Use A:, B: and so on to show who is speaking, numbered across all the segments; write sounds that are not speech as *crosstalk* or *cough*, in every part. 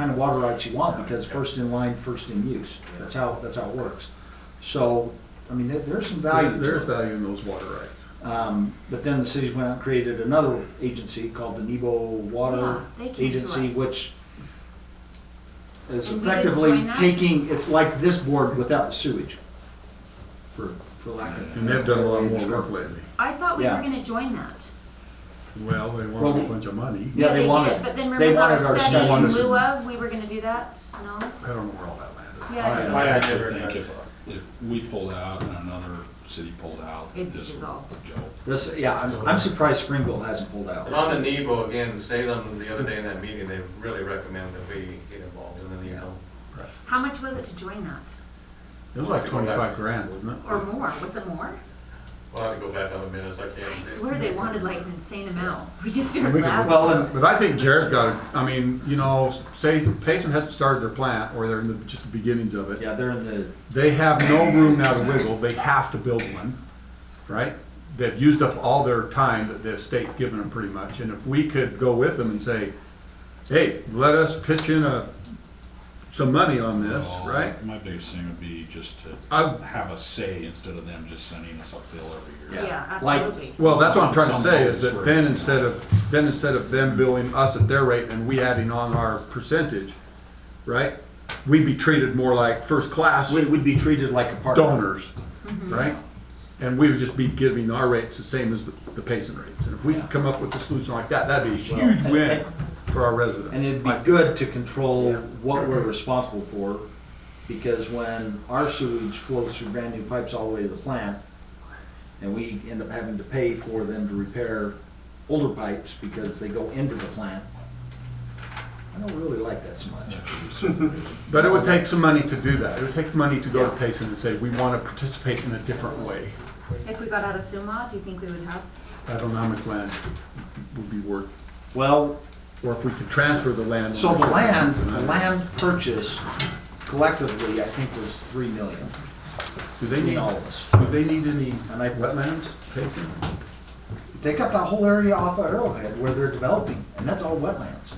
A: kind of water rights you want, because first in line, first in use. That's how, that's how it works. So, I mean, there, there's some value
B: There is
A: to it.
B: value in those water rights.
A: Um, but then the cities went out and created another agency called the Nebo Water
C: Yeah, they came to
A: Agency,
C: us.
A: which is
C: And we didn't
A: effectively
C: join that?
A: taking, it's like this board without the sewage, for, for lack of.
B: And they've done a lot more work lately.
C: I thought we were
A: Yeah.
C: gonna join that.
B: Well, they want a bunch of money.
A: Yeah, they wanted-
C: did, But
A: they
C: then remember our
A: wanted our
C: study in
A: studies.
C: lieu of, we were gonna do that, no?
B: I don't know where all that landed.
C: Yeah,
D: I
E: I
D: actually
E: never
D: think
E: got
D: if,
E: it.
D: if we pulled out and another city pulled out,
C: It'd be
D: this would
C: dissolved.
D: go.
A: This, yeah, I'm, I'm surprised Springville hasn't pulled out.
E: And on the NEBO, again, Salem, the other day in that meeting, they really recommend that we get involved in the NEBO.
C: How much was it to join that?
B: It was like twenty-five grand, wasn't it?
C: Or more, was it more?
E: We'll have to go back on the minutes, I
C: I
E: can't.
C: swear they wanted like an insane amount. We just
B: And
C: started
B: we could-
C: laughing.
A: Well, and
B: But I think Jared got it, I mean, you know, say, Payson hasn't started their plant, or they're in the, just the beginnings of it.
A: Yeah, they're in the,
B: They have no room now to wiggle, they have to build one, right? They've used up all their time that the state's given them pretty much, and if we could go with them and say, hey, let us pitch in a, some money on this,
D: Well,
B: right?
D: My biggest thing would be just to
B: I,
D: have a say instead of them just sending us uphill every year.
C: Yeah,
A: like-
C: absolutely.
B: Well, that's what I'm trying to
D: Some
B: say, is
D: votes
B: that
D: were-
B: then instead of, then instead of them billing us at their rate and we adding on our percentage, right? We'd be treated more like first-class
A: we, we'd be treated like a partner.
B: donors, right? And we would just be giving our rates the same as the the Payson rates. And if we could come up with a solution like that, that'd be a huge
A: Well,
B: win for our
A: And
B: residents.
A: it'd be good to control what we're responsible for, because when our sewage flows through brand new pipes all the way to the plant, and we end up having to pay for them to repair older pipes because they go into the plant, I don't really like that so much.
D: *laughs*
B: But it would take some money to do that. It would take money to go to Payson and say, we want to participate in a different way.
C: If we got out of Sumac, do you think we would have?
B: I don't know how much land would be worth,
A: Well,
B: or if we could transfer the land.
A: so the land, the land purchase collectively, I think was three million,
B: Do they
A: between
B: need,
A: all of us.
B: do they need any
A: And I-
B: wetlands taken?
A: They got that whole area off of Arrowhead where they're developing, and that's all wetlands.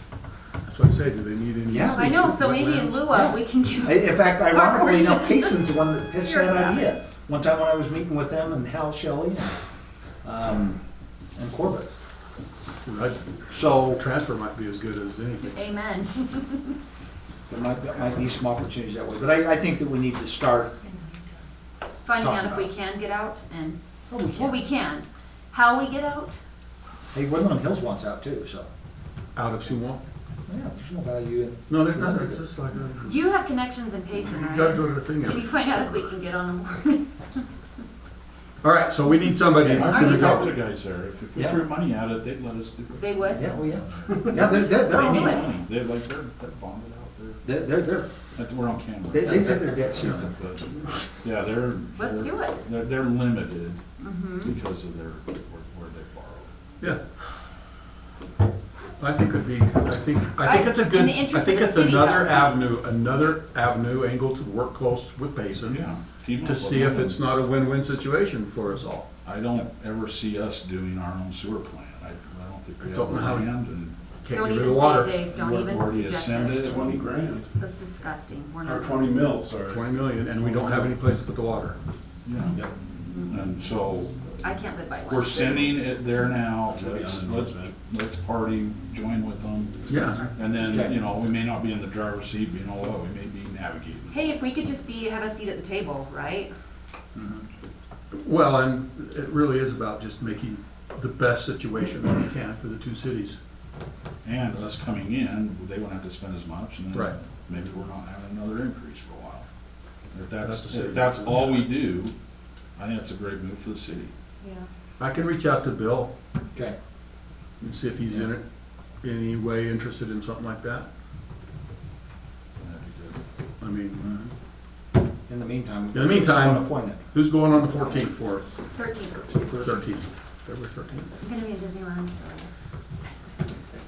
B: That's what I say, do they need any?
A: Yeah.
C: I know, so maybe in
B: wetlands?
C: lieu of, we can give.
A: I- In fact, ironically enough,
C: Our portion.
A: Payson's the one that pitched
C: You're
A: that
C: right.
A: idea. One time when I was meeting with them and Hal Shelley and, um, and Corbett.
B: Right.
A: So
B: Transfer might be as good as anything.
C: Amen.
A: there might, there might be some opportunities that way, but I, I think that we need to start.
C: Finding
A: Talk
C: out if
A: about
C: we
A: it.
C: can get out and,
A: Oh, we
C: well, we can. How we get out?
A: Hey, Woodland Hills wants out too, so,
B: Out of Sewall?
A: yeah, there's no value in.
B: No, there's nothing, it's just like, a-
C: You have connections in Payson,
B: you
C: right?
B: gotta do the thing.
C: Can you
B: out.
C: find out if we can get on the board?
B: All right, so we need somebody that's
C: Are
B: gonna
C: you
D: The
B: go.
C: guys-
D: guys there, if, if we
A: Yeah.
D: threw money at it, they'd let us do it.
C: They would? Oh,
A: Yeah, well, yeah. Yeah, they're, they're,
D: They
C: do
D: need
A: they're,
C: it.
D: money, they're like, they're, they're bonded out there,
A: they're, they're, they're-
D: That's- we're on
A: they,
D: camera.
A: they pay their debt soon.
D: But, Yeah, they're.
C: Let's
D: they're-
C: do it. Mm-hmm.
D: They're, they're limited because of their, where where they borrowed.
B: Yeah. I think it'd be, I think, I think it's a
C: I- in
B: good,
C: the
B: I
C: interest
B: think
C: of the
B: it's
C: city,
B: another
C: though.
B: avenue, another avenue angle to work close with Basin
D: Yeah. team
B: to
D: up
B: see
D: with
B: if
D: them.
B: it's not a win-win situation for us all.
D: I don't ever see us doing our own sewer plant. I, I don't think we
B: I
D: have
B: don't know how-
D: land and.
B: Can't
C: Don't
B: get rid
C: even
B: of
C: say it,
B: water.
C: Dave, don't
D: we're
C: even
D: already
C: suggest
D: ascended.
C: it.
F: Twenty grand,
C: That's disgusting, we're
F: or
C: not.
F: twenty mil, sorry.
B: Twenty million, and we don't have any place to put the water.
D: Yeah. And so
C: I can't live by one.
D: we're sending it there now. Let's, let's, let's party, join with them.
B: Yeah.
D: And then, you know, we may not be in the driver's seat, but you know what, we may be navigating.
C: Hey, if we could just be, have a seat at the table, right?
B: Well, and it really is about just making the best situation that we can for the two cities.
D: And us coming in, they won't have to spend as much and
B: Right.
D: then maybe we're not having another increase for a while. If
B: That's
D: that's,
B: the
D: if that's all we do, I think that's a great move for the city.
C: Yeah.
B: I can reach out to Bill
A: Okay,
B: and see if he's in it, any way interested in something like that.
D: That'd be good.
B: I mean,
A: in the meantime.
B: In the meantime-
A: someone appointed.
B: who's going on the fourteenth for us?
C: Thirteen,
B: Thirteenth, February thirteenth.
C: I'm gonna be in Disneyland, so.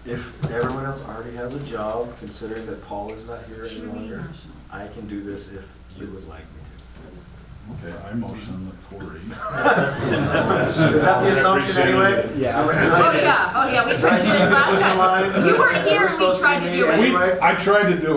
G: If everyone else already has a job, considering that Paul is not here
C: She
G: any
C: would be
G: longer,
C: national.
G: I can do this if you would like me
C: so it was-
D: Okay, I motion that Cory.
F: Is that the assumption anyway?
G: *laughs*
C: Oh, yeah, oh, yeah, we tried to do this last time. You weren't here and we tried to do it.
D: I tried to do